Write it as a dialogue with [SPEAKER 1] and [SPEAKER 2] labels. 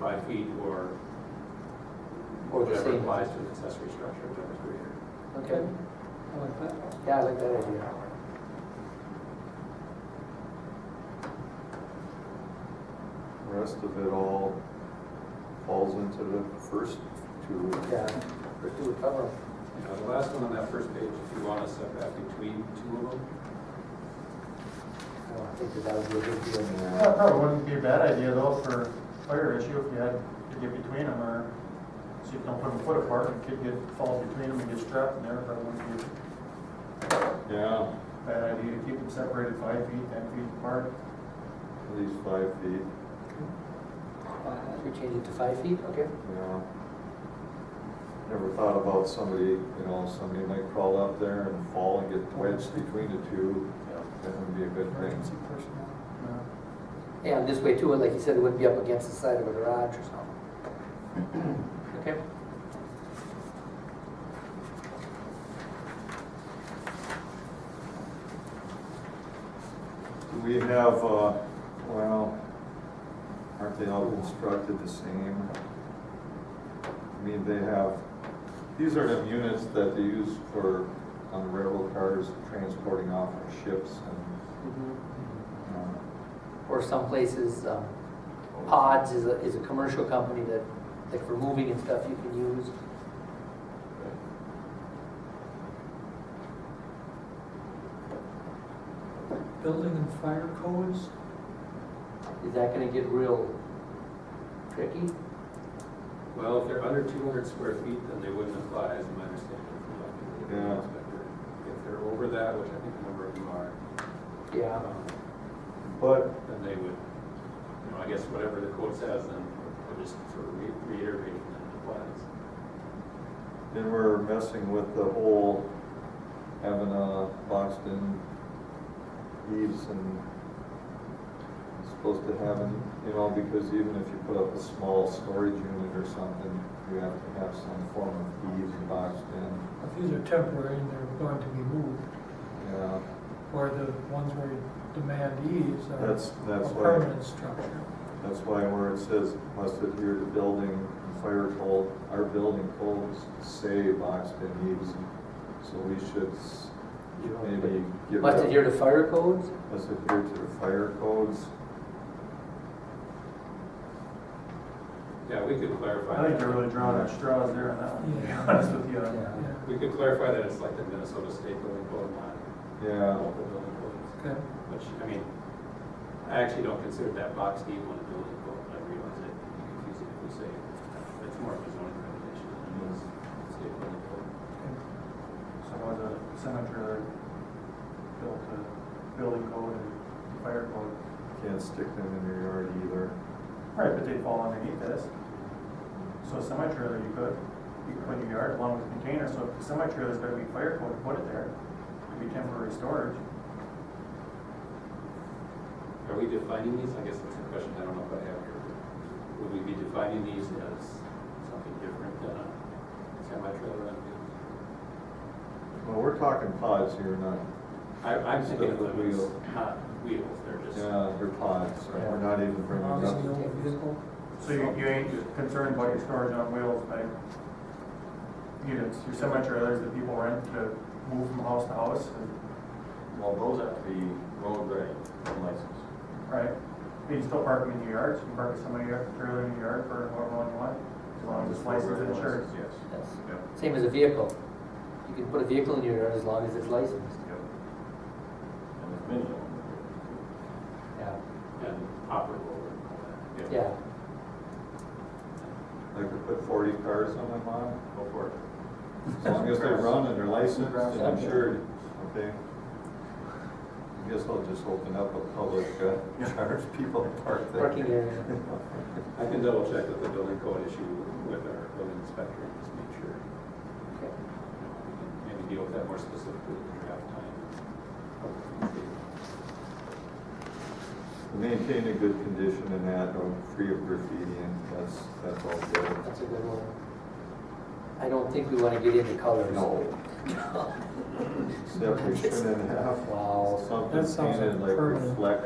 [SPEAKER 1] five feet or
[SPEAKER 2] Or the
[SPEAKER 1] whatever
[SPEAKER 2] same.
[SPEAKER 1] applies to an accessory structure, whatever's greater.
[SPEAKER 2] Okay,
[SPEAKER 3] I like that.
[SPEAKER 2] yeah, I like that idea.
[SPEAKER 4] The Rest of it all falls into the first two.
[SPEAKER 2] Yeah, let's do a cover.
[SPEAKER 1] Now, the last one on that first page, if you want a setback between two of them,
[SPEAKER 2] I don't think that that would be a good deal.
[SPEAKER 5] That probably wouldn't be a bad idea though for fire issue if you had to get between them or so you don't put them foot apart and could get, fall between them and get trapped in there. That wouldn't be
[SPEAKER 4] Yeah.
[SPEAKER 5] a bad idea to keep them separated five feet, ten feet apart.
[SPEAKER 4] At least five feet,
[SPEAKER 2] Uh, We change it to five feet, okay?
[SPEAKER 4] yeah. Never thought about somebody, you know, somebody might crawl up there and fall and get wedged between the two. That would be a good thing.
[SPEAKER 3] Emergency personnel.
[SPEAKER 5] Yeah.
[SPEAKER 2] And this way too, like you said, it wouldn't be up against the side of a garage or something. Okay? Mm-hmm.
[SPEAKER 4] Do we have, uh, well, aren't they all constructed the same? I mean, they have, these are the units that they use for, on railroad cars, transporting off of ships and,
[SPEAKER 2] Mm-hmm.
[SPEAKER 4] uh,
[SPEAKER 2] Or some places, um, Pods is a, is a commercial company that, like for moving and stuff, you can use.
[SPEAKER 3] Building and fire codes,
[SPEAKER 2] Is that gonna get real tricky?
[SPEAKER 1] well, if they're under two hundred square feet, then they wouldn't apply, as my understanding from the building
[SPEAKER 4] Yeah.
[SPEAKER 1] inspector. If they're over that, which I think a number of them are,
[SPEAKER 2] Yeah.
[SPEAKER 1] um,
[SPEAKER 4] But,
[SPEAKER 1] then they would, you know, I guess whatever the code says, then we're just sort of re- reiterating that it applies.
[SPEAKER 4] then we're messing with the whole, having a boxed in eaves and supposed to have, an- you know, because even if you put up a small storage unit or something, you have to have some form of eaves boxed in,
[SPEAKER 3] if these are temporary and they're going to be moved,
[SPEAKER 4] yeah.
[SPEAKER 3] or the ones where you demand ease are
[SPEAKER 4] That's, that's
[SPEAKER 3] a
[SPEAKER 4] why,
[SPEAKER 3] permanent structure.
[SPEAKER 4] that's why where it says must adhere to building and fire code, our building codes say boxed in eaves. So we should s- maybe give.
[SPEAKER 2] Must adhere to fire codes?
[SPEAKER 4] Must adhere to the fire codes.
[SPEAKER 1] Yeah, we could clarify.
[SPEAKER 5] I think
[SPEAKER 1] that.
[SPEAKER 5] you're really drawing on straws there on that one, to be
[SPEAKER 3] Yeah.
[SPEAKER 5] honest with you.
[SPEAKER 3] Yeah,
[SPEAKER 1] We could clarify that it's like the Minnesota State Building Code, not uh,
[SPEAKER 4] Yeah,
[SPEAKER 1] local building codes,
[SPEAKER 3] okay.
[SPEAKER 1] which, I mean, I actually don't consider that box D one a building code, but I realize it can be confusing if we say it's more of a zoning regulation than it is a state building code.
[SPEAKER 5] So was a senator built a building code and fire code.
[SPEAKER 4] can't stick them in your yard either.
[SPEAKER 5] Right, but they fall underneath this. So a semi-trailer, you could, you could put in your yard along with the container, so if the semi-trailer's gotta be fire code, put it there. It'd be temporary storage.
[SPEAKER 1] Are we defining these? I guess that's a question I don't know if I have here. Would we be defining these as something different than a semi-trailer on wheels?
[SPEAKER 4] Well, we're talking pods here, not,
[SPEAKER 1] I, I'm thinking of
[SPEAKER 4] Stuff with
[SPEAKER 1] them as
[SPEAKER 4] wheel.
[SPEAKER 1] not wheels, they're just.
[SPEAKER 4] yeah, they're pods, right? We're not even bringing
[SPEAKER 3] Long as you
[SPEAKER 4] up.
[SPEAKER 3] own a vehicle,
[SPEAKER 5] So you, you ain't concerned about your storage on wheels, like units, your semi-trailers that people rent to move from house to house, and-
[SPEAKER 6] Well, those have to be road ready and licensed.
[SPEAKER 5] right? But you can still park them in your yard, so you can park a semi-trailer in your yard for however long you want, as long as it's licensed and insured.
[SPEAKER 6] Yes.
[SPEAKER 2] That's
[SPEAKER 6] Yep,
[SPEAKER 2] same as a vehicle. You can put a vehicle in your yard as long as it's licensed.
[SPEAKER 6] yep. And there's many of them.
[SPEAKER 2] Yeah.
[SPEAKER 1] And operable uh, and all that.
[SPEAKER 2] Yeah.
[SPEAKER 4] I could put forty cars on my lawn,
[SPEAKER 6] Go for it.
[SPEAKER 4] as long as they run and they're licensed and insured, okay? I guess I'll just open up a public, uh, charge people to park there.
[SPEAKER 2] Parking area.
[SPEAKER 1] I can double check with the building code issue with our building inspector and just make sure.
[SPEAKER 2] Okay.
[SPEAKER 1] you know, we can Maybe deal with that more specifically in draft time.
[SPEAKER 4] Maintain a good condition and that, or free of graffiti, and that's, that's all good.
[SPEAKER 2] That's a good one. I don't think we wanna get into colors.
[SPEAKER 4] No. Except we shouldn't have
[SPEAKER 2] Wow.
[SPEAKER 4] something
[SPEAKER 3] That sounds like
[SPEAKER 4] painted like
[SPEAKER 3] permanent.
[SPEAKER 4] reflect